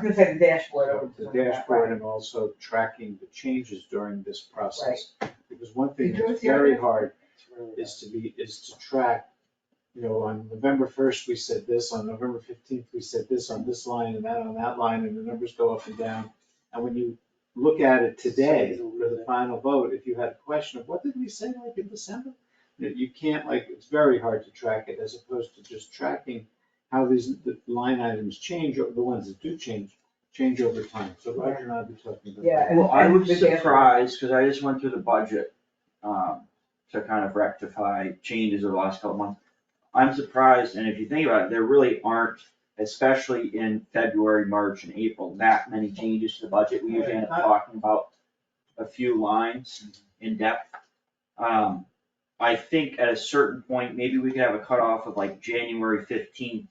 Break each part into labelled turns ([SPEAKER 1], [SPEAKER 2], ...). [SPEAKER 1] I'm gonna say the dashboard over to
[SPEAKER 2] the
[SPEAKER 1] the left,
[SPEAKER 2] dashboard
[SPEAKER 1] right?
[SPEAKER 2] and also tracking the changes during this process. Because one
[SPEAKER 1] You
[SPEAKER 2] thing
[SPEAKER 1] do it
[SPEAKER 2] that's
[SPEAKER 1] the other
[SPEAKER 2] very
[SPEAKER 1] day?
[SPEAKER 2] hard is to be, is to track, you know, on November first, we said this, on November fifteenth, we said this on this line and that on that line, and the numbers go up and down. And when you look at it today for the final vote, if you had a question of what did we say like in December? That you can't like, it's very hard to track it as opposed to just tracking how these the line items change, or the ones that do change, change over time. So Roger and I will be talking about that.
[SPEAKER 1] Yeah, and-
[SPEAKER 3] Well, I
[SPEAKER 1] and
[SPEAKER 3] was
[SPEAKER 1] the dashboard.
[SPEAKER 3] surprised, because I just went through the budget, um, to kind of rectify changes over the last couple months. I'm surprised, and if you think about it, there really aren't, especially in February, March and April, that many changes to the budget. We usually end up talking about a few lines in depth. Um, I think at a certain point, maybe we could have a cutoff of like January fifteenth,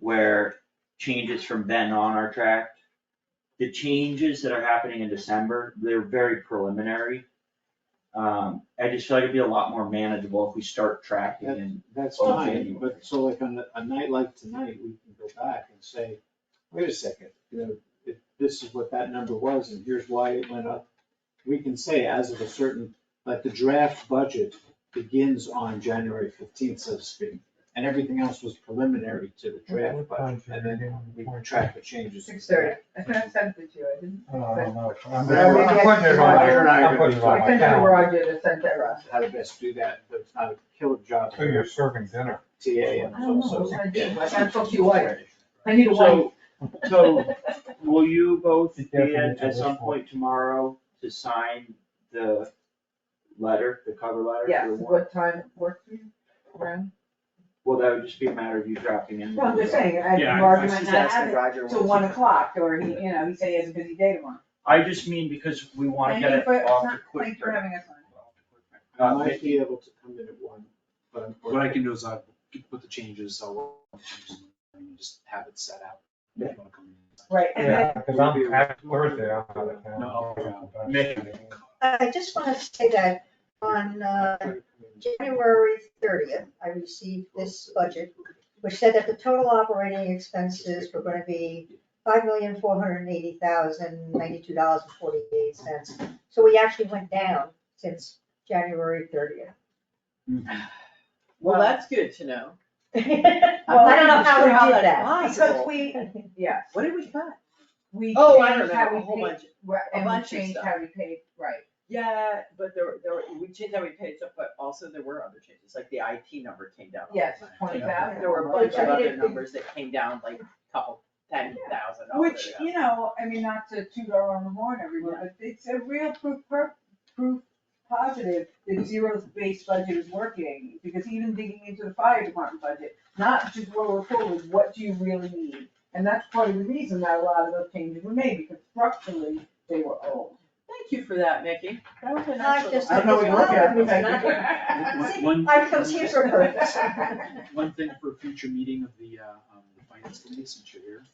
[SPEAKER 3] where changes from then on are tracked the changes that are happening in December, they're very preliminary. Um, I just feel like it'd be a lot more manageable if we start tracking and,
[SPEAKER 2] That's
[SPEAKER 3] Well,
[SPEAKER 2] fine,
[SPEAKER 3] January.
[SPEAKER 2] but so like on a, a night like tonight, we can go back and say, wait a second, you know, if this is what that number was and here's why it went up. We can say as of a certain, like the draft budget begins on January fifteenth, so to speak, and everything else was preliminary to the draft budget. And then we can track the changes.
[SPEAKER 1] Six thirty, I think I sent it to you, I didn't.
[SPEAKER 4] I don't know. I'm
[SPEAKER 2] But I would
[SPEAKER 4] I'm
[SPEAKER 2] get
[SPEAKER 4] putting it
[SPEAKER 2] to
[SPEAKER 4] on my-
[SPEAKER 2] Roger and I
[SPEAKER 4] I'm
[SPEAKER 2] would
[SPEAKER 4] putting it on
[SPEAKER 1] I
[SPEAKER 3] Uh,
[SPEAKER 2] be-
[SPEAKER 4] my
[SPEAKER 1] sent it to
[SPEAKER 4] calendar.
[SPEAKER 1] Roger to send to Russ.
[SPEAKER 2] How to best do that, but it's not a killer job.
[SPEAKER 4] So you're serving dinner.
[SPEAKER 2] TA and
[SPEAKER 1] I don't know,
[SPEAKER 2] also.
[SPEAKER 1] what I do, I gotta talk to your wife, I need a wife.
[SPEAKER 3] So- so will you both be
[SPEAKER 4] Be careful
[SPEAKER 3] at,
[SPEAKER 4] what you
[SPEAKER 3] at some
[SPEAKER 4] wish for.
[SPEAKER 3] point tomorrow to sign the letter, the cover letter
[SPEAKER 1] Yes,
[SPEAKER 3] for the warrant?
[SPEAKER 1] what time works for you, around?
[SPEAKER 3] Well, that would just be a matter of you dropping in.
[SPEAKER 1] No, I'm just saying, I,
[SPEAKER 3] Yeah, I-
[SPEAKER 1] Roger
[SPEAKER 3] I
[SPEAKER 1] might not
[SPEAKER 3] suggested
[SPEAKER 1] have it
[SPEAKER 3] Roger
[SPEAKER 1] till
[SPEAKER 3] was-
[SPEAKER 1] one o'clock, or he, you know, he said he has a busy day tomorrow.
[SPEAKER 3] I just mean because we wanna
[SPEAKER 1] Thank
[SPEAKER 3] get
[SPEAKER 1] you
[SPEAKER 3] it
[SPEAKER 1] for-
[SPEAKER 3] off the
[SPEAKER 1] Thanks
[SPEAKER 3] quick.
[SPEAKER 1] for having us on.
[SPEAKER 2] I
[SPEAKER 3] Uh,
[SPEAKER 2] might be able to come in at one, but
[SPEAKER 5] What I can do is I can put the changes, I'll work on the changes and just have it set out. if you wanna come in.
[SPEAKER 1] Right, and then,
[SPEAKER 4] Yeah, because I'm at Thursday, I'm out of town.
[SPEAKER 5] No,
[SPEAKER 6] I just want to say that on uh, January 30th, I received this budget, which said that the total operating expenses were going to be $5,480,092.48. So we actually went down since January 30th.
[SPEAKER 7] Well, that's good to know.
[SPEAKER 1] Well,
[SPEAKER 6] I don't know how we
[SPEAKER 1] how
[SPEAKER 6] did
[SPEAKER 7] that's
[SPEAKER 6] that.
[SPEAKER 1] because we, yes,
[SPEAKER 7] What did we cut?
[SPEAKER 1] we
[SPEAKER 7] Oh, I don't
[SPEAKER 1] changed
[SPEAKER 7] know, a
[SPEAKER 1] how we
[SPEAKER 7] whole
[SPEAKER 1] paid,
[SPEAKER 7] bunch.
[SPEAKER 1] right,
[SPEAKER 7] a
[SPEAKER 1] and we
[SPEAKER 7] bunch of
[SPEAKER 1] changed
[SPEAKER 7] stuff.
[SPEAKER 1] how we paid, right,
[SPEAKER 7] Yeah, but there, were- there, were- we changed how we paid stuff, but also there were other changes, like the IT number came down.
[SPEAKER 1] yes, twenty thousand.
[SPEAKER 7] There were a bunch of
[SPEAKER 1] I mean,
[SPEAKER 7] other
[SPEAKER 1] it-
[SPEAKER 7] numbers that came down, like a couple, ten thousand dollars.
[SPEAKER 1] Which, you know, I mean, not to toot our own horn everyone, but it's a real proof, per- proof positive that zero-based budget is working, because even digging into the fire department budget, not just what we're full of, what do you really need? And that's part of the reason that a lot of those changes were made, because structurally, they were old.
[SPEAKER 7] Thank you for that, Mickey. That was a
[SPEAKER 6] I
[SPEAKER 7] nice
[SPEAKER 6] just-
[SPEAKER 7] little.
[SPEAKER 2] I don't know what you're looking at, but
[SPEAKER 3] One- one-
[SPEAKER 6] I comes here for a purpose.
[SPEAKER 5] One thing for a future meeting of the, uh, um, the finance committee, since you're here.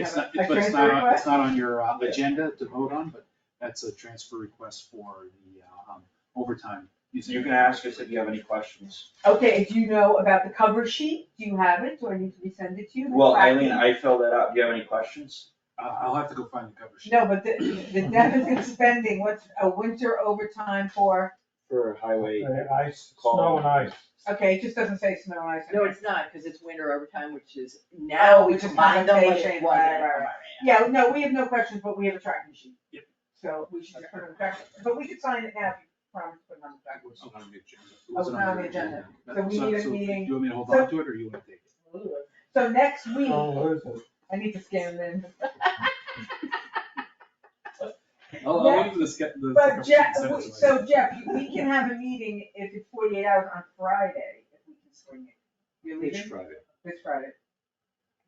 [SPEAKER 5] It's
[SPEAKER 1] have
[SPEAKER 5] not,
[SPEAKER 1] a- a
[SPEAKER 5] but it's
[SPEAKER 1] transfer
[SPEAKER 5] not, on-
[SPEAKER 1] request?
[SPEAKER 5] it's not on your uh, agenda to vote on, but that's a transfer request for the, uh, um, overtime.
[SPEAKER 3] You can ask us if you have any questions.
[SPEAKER 1] Okay, do you know about the cover sheet? Do you have it? Do I need to resend it to you? The
[SPEAKER 3] Well,
[SPEAKER 1] tracking?
[SPEAKER 3] Eileen, I filled that out. Do you have any questions?
[SPEAKER 5] Uh, I'll have to go find the cover sheet.
[SPEAKER 1] No, but the,
[SPEAKER 7] Mm-hmm.
[SPEAKER 1] the deficit spending, what's a winter overtime for?
[SPEAKER 3] For highway.
[SPEAKER 4] Uh, Ice, snow and ice.
[SPEAKER 1] Okay, it just doesn't say snow and ice. Oh,
[SPEAKER 7] No, it's not, because it's winter overtime, which is now we
[SPEAKER 1] which is
[SPEAKER 7] combine them like
[SPEAKER 1] compensation,
[SPEAKER 7] it
[SPEAKER 1] right,
[SPEAKER 7] wasn't.
[SPEAKER 1] right, right. Yeah, no, we have no questions, but we have a tracking sheet.
[SPEAKER 5] Yep.
[SPEAKER 1] So we should just put it on track, but we could sign it now if you promise to put it on the track.
[SPEAKER 5] It wasn't on the
[SPEAKER 1] Oh, it's not on
[SPEAKER 5] agenda. It wasn't your
[SPEAKER 1] the agenda.
[SPEAKER 5] That-
[SPEAKER 1] So we need a meeting-
[SPEAKER 5] Do you want me to hold
[SPEAKER 1] so-
[SPEAKER 5] on to it or you wanna take it?
[SPEAKER 1] So next week,
[SPEAKER 7] Oh.
[SPEAKER 4] Don't lose Oh, it.
[SPEAKER 1] I need to scan them.
[SPEAKER 5] I'll, I'll leave the ske- the. cover
[SPEAKER 1] But
[SPEAKER 5] sheet
[SPEAKER 1] Jeff,
[SPEAKER 5] separate
[SPEAKER 1] we-
[SPEAKER 5] so I
[SPEAKER 1] so
[SPEAKER 5] can-
[SPEAKER 1] Jeff, we can have a meeting if it's forty-eight hours on Friday, if we can swing it. You're
[SPEAKER 2] Which
[SPEAKER 1] leaving
[SPEAKER 2] Friday?
[SPEAKER 1] this Friday.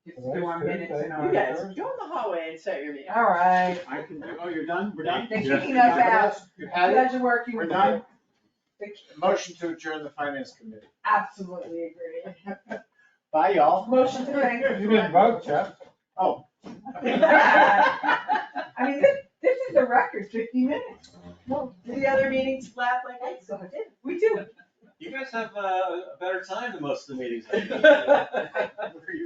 [SPEAKER 1] Just
[SPEAKER 4] Well,
[SPEAKER 1] do our
[SPEAKER 4] that's
[SPEAKER 1] minutes and
[SPEAKER 4] Thursday.
[SPEAKER 1] our.
[SPEAKER 7] You guys, go in the hallway and set your meeting.
[SPEAKER 1] All right.
[SPEAKER 2] I can, do- oh, you're done? We're done?
[SPEAKER 1] They're
[SPEAKER 2] Yeah.
[SPEAKER 1] kicking us out.
[SPEAKER 2] You had it?
[SPEAKER 1] Pleasure working
[SPEAKER 2] We're
[SPEAKER 1] with you.
[SPEAKER 2] done? Motion to adjourn the finance committee.
[SPEAKER 1] Absolutely agree.
[SPEAKER 2] Bye, y'all.
[SPEAKER 1] Motion to thank.
[SPEAKER 4] You didn't vote, Jeff.
[SPEAKER 1] I mean, this, this is the record, fifty minutes.
[SPEAKER 7] The other meetings laugh like I
[SPEAKER 1] So I did. We do.
[SPEAKER 8] You guys have uh, a better time than most of the meetings.
[SPEAKER 7] did.
[SPEAKER 5] Where are you